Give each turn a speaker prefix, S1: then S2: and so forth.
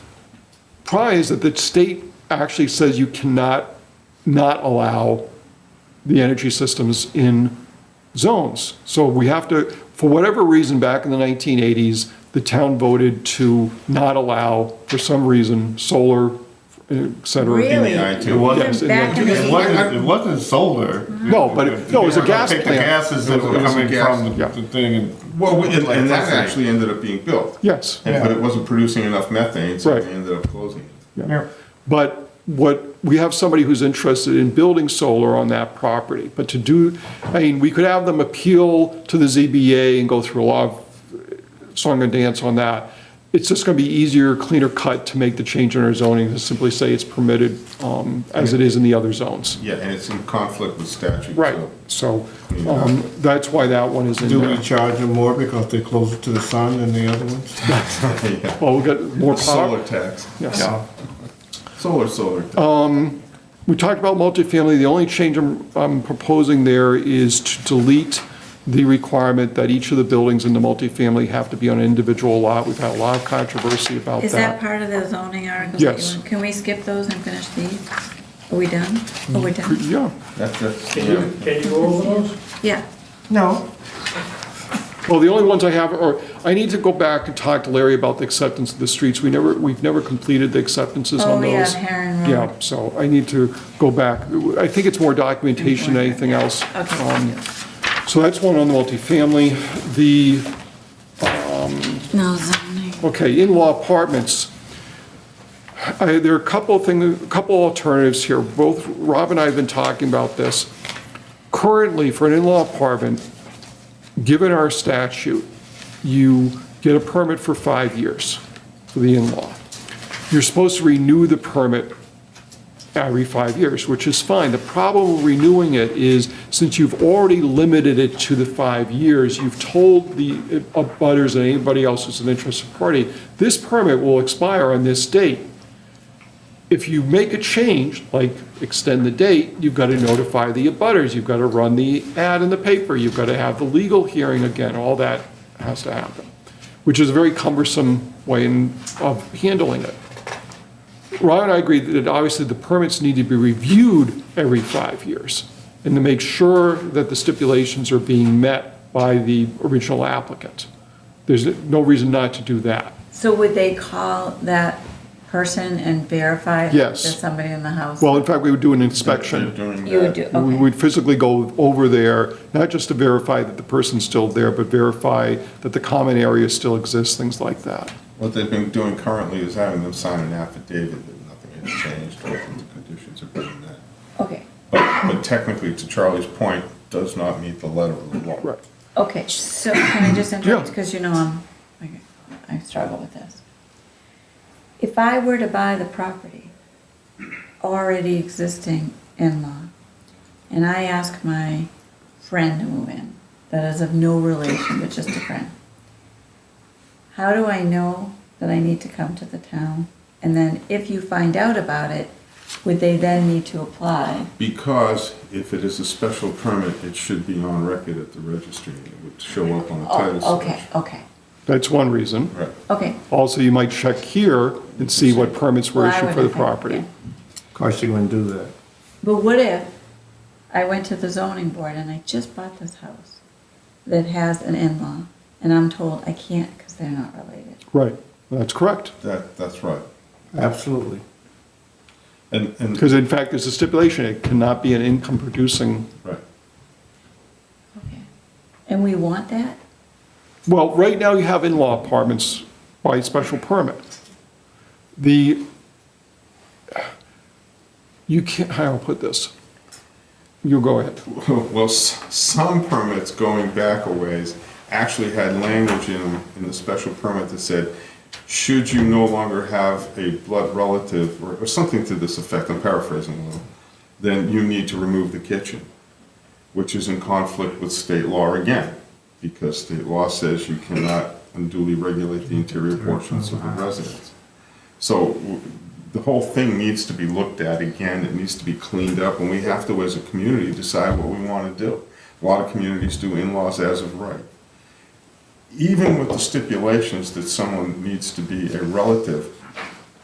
S1: prize that the state actually says you cannot not allow the energy systems in zones. So we have to, for whatever reason, back in the 1980s, the town voted to not allow, for some reason, solar, et cetera.
S2: Really?
S1: It was-
S2: Even back in
S1: Yes,
S2: the
S3: It wasn't, it wasn't solar.
S1: No, but it- no, it was a gas
S3: Pick the
S1: plant.
S3: gases that were
S4: It was a
S3: coming
S4: gas-
S3: from
S1: yeah.
S3: the- the thing and.
S4: Well, we- and
S3: like
S4: and that
S3: methane.
S4: actually ended up being built.
S1: Yes.
S3: Yeah.
S4: And- But it wasn't producing enough methane, so
S1: Right.
S4: they ended up closing it.
S3: Yeah.
S1: But what, we have somebody who's interested in building solar on that property, but to do, I mean, we could have them appeal to the ZBA and go through a lot of uh, song and dance on that. It's just gonna be easier, cleaner cut to make the change in our zoning to simply say it's permitted, um, as it is in the other zones.
S4: Yeah, and it's in conflict with statute.
S1: Right,
S4: so-
S1: so, um, that's why that one is in
S3: Do we
S1: there.
S3: charge them more because they're closer to the sun than the other ones?
S4: Yeah.
S1: Well, we got more
S4: Solar
S1: power.
S4: tax.
S1: Yes.
S3: Yeah.
S4: Solar, solar.
S1: Oh,
S4: tax.
S1: We talked about multifamily, the only change I'm, I'm proposing there is to delete the requirement that each of the buildings in the multifamily have to be on an individual lot. We've had a lot of controversy about
S2: Is that
S1: that.
S2: part of the zoning articles? that you
S1: Yes.
S2: want? Can we skip those and finish these? Are we done? Are we done?
S1: Yeah,
S4: That's, that's,
S5: Can
S4: yeah.
S5: you, can you go over those?
S2: Yeah.
S3: No.
S1: well, the only ones I have are, I need to go back and talk to Larry about the acceptance of the streets. We never, we've never completed the acceptances
S2: Oh,
S1: on
S2: yeah,
S1: those.
S2: Heron Road.
S1: Yeah, so I need to go back. I think it's more documentation than anything else.
S2: Okay.
S1: Um, So that's one on the multifamily. The
S2: No zoning.
S1: Okay, in-law apartments. I- There are a couple of things, a couple alternatives here. Both Rob and I have been talking about this. Currently, for an in-law apartment, given our statute, you get a permit for five years for the in-law. You're supposed to renew the permit every five years, which is fine. The problem with renewing it is, since you've already limited it to the five years, you've told the abutters and anybody else who's an interested party, this permit will expire on this date. If you make a change, like extend the date, you've got to notify the abutters, you've got to run the ad in the paper, you've got to have the legal hearing again, all that has to happen, which is a very cumbersome way in- of handling it. Ryan and I agree that obviously the permits need to be reviewed every five years and to make sure that the stipulations are being met by the original applicant. There's no reason not to do that.
S2: So would they call that person and verify? that
S1: Yes.
S2: There's somebody in the house?
S1: Well, in fact, we would do an inspection.
S4: During
S2: You would
S4: that.
S2: do,
S1: We
S2: okay.
S1: would physically go over there, not just to verify that the person's still there, but verify that the common area still exists, things like that.
S4: What they've been doing currently is having them sign an affidavit that nothing has changed, or that the conditions are better than that.
S2: Okay,
S4: But but technically, to Charlie's point, does not meet the letter of the law.
S1: Right.
S2: okay. So can I just interrupt?
S1: Yeah.
S2: Because you know I'm, I- I struggle with this. If I were to buy the property, already existing in-law, and I ask my friend to move in, that is of no relation, but just a friend, how do I know that I need to come to the town? And then if you find out about it, would they then need to apply?
S4: Because if it is a special permit, it should be on record at the registry, and it would show up on the title
S2: Oh,
S4: search.
S2: okay, okay,
S1: That's one reason.
S4: Right.
S2: okay.
S1: Also, you might check here and see what permits were
S2: Well, I
S1: issued for the
S2: wouldn't think-
S1: property.
S2: yeah.
S3: Of course you wouldn't do that.
S2: But what if I went to the zoning board and I just bought this house that has an in-law and I'm told I can't because they're not related?
S1: Right, that's correct.
S4: That, that's right.
S3: Absolutely.
S4: And, and,
S1: Because in fact, there's a stipulation, it cannot be an income-producing,
S4: right.
S2: Okay. And we want that?
S1: well, right now you have in-law apartments by special permit. The, you can't, how do I put this? You go ahead.
S4: Well, s- some permits going back a ways actually had language in, 'em in the special permit that said, should you no longer have a blood relative, or, or something to this effect, I'm paraphrasing a little, then you need to remove the kitchen, which is in conflict with state law again, because state law says you cannot unduly regulate the interior portions of the residence. So w- the whole thing needs to be looked at again, it needs to be cleaned up, and we have to, as a community, decide what we want to do. A lot of communities do in-laws as of right. Even with the stipulations that someone needs to be a relative,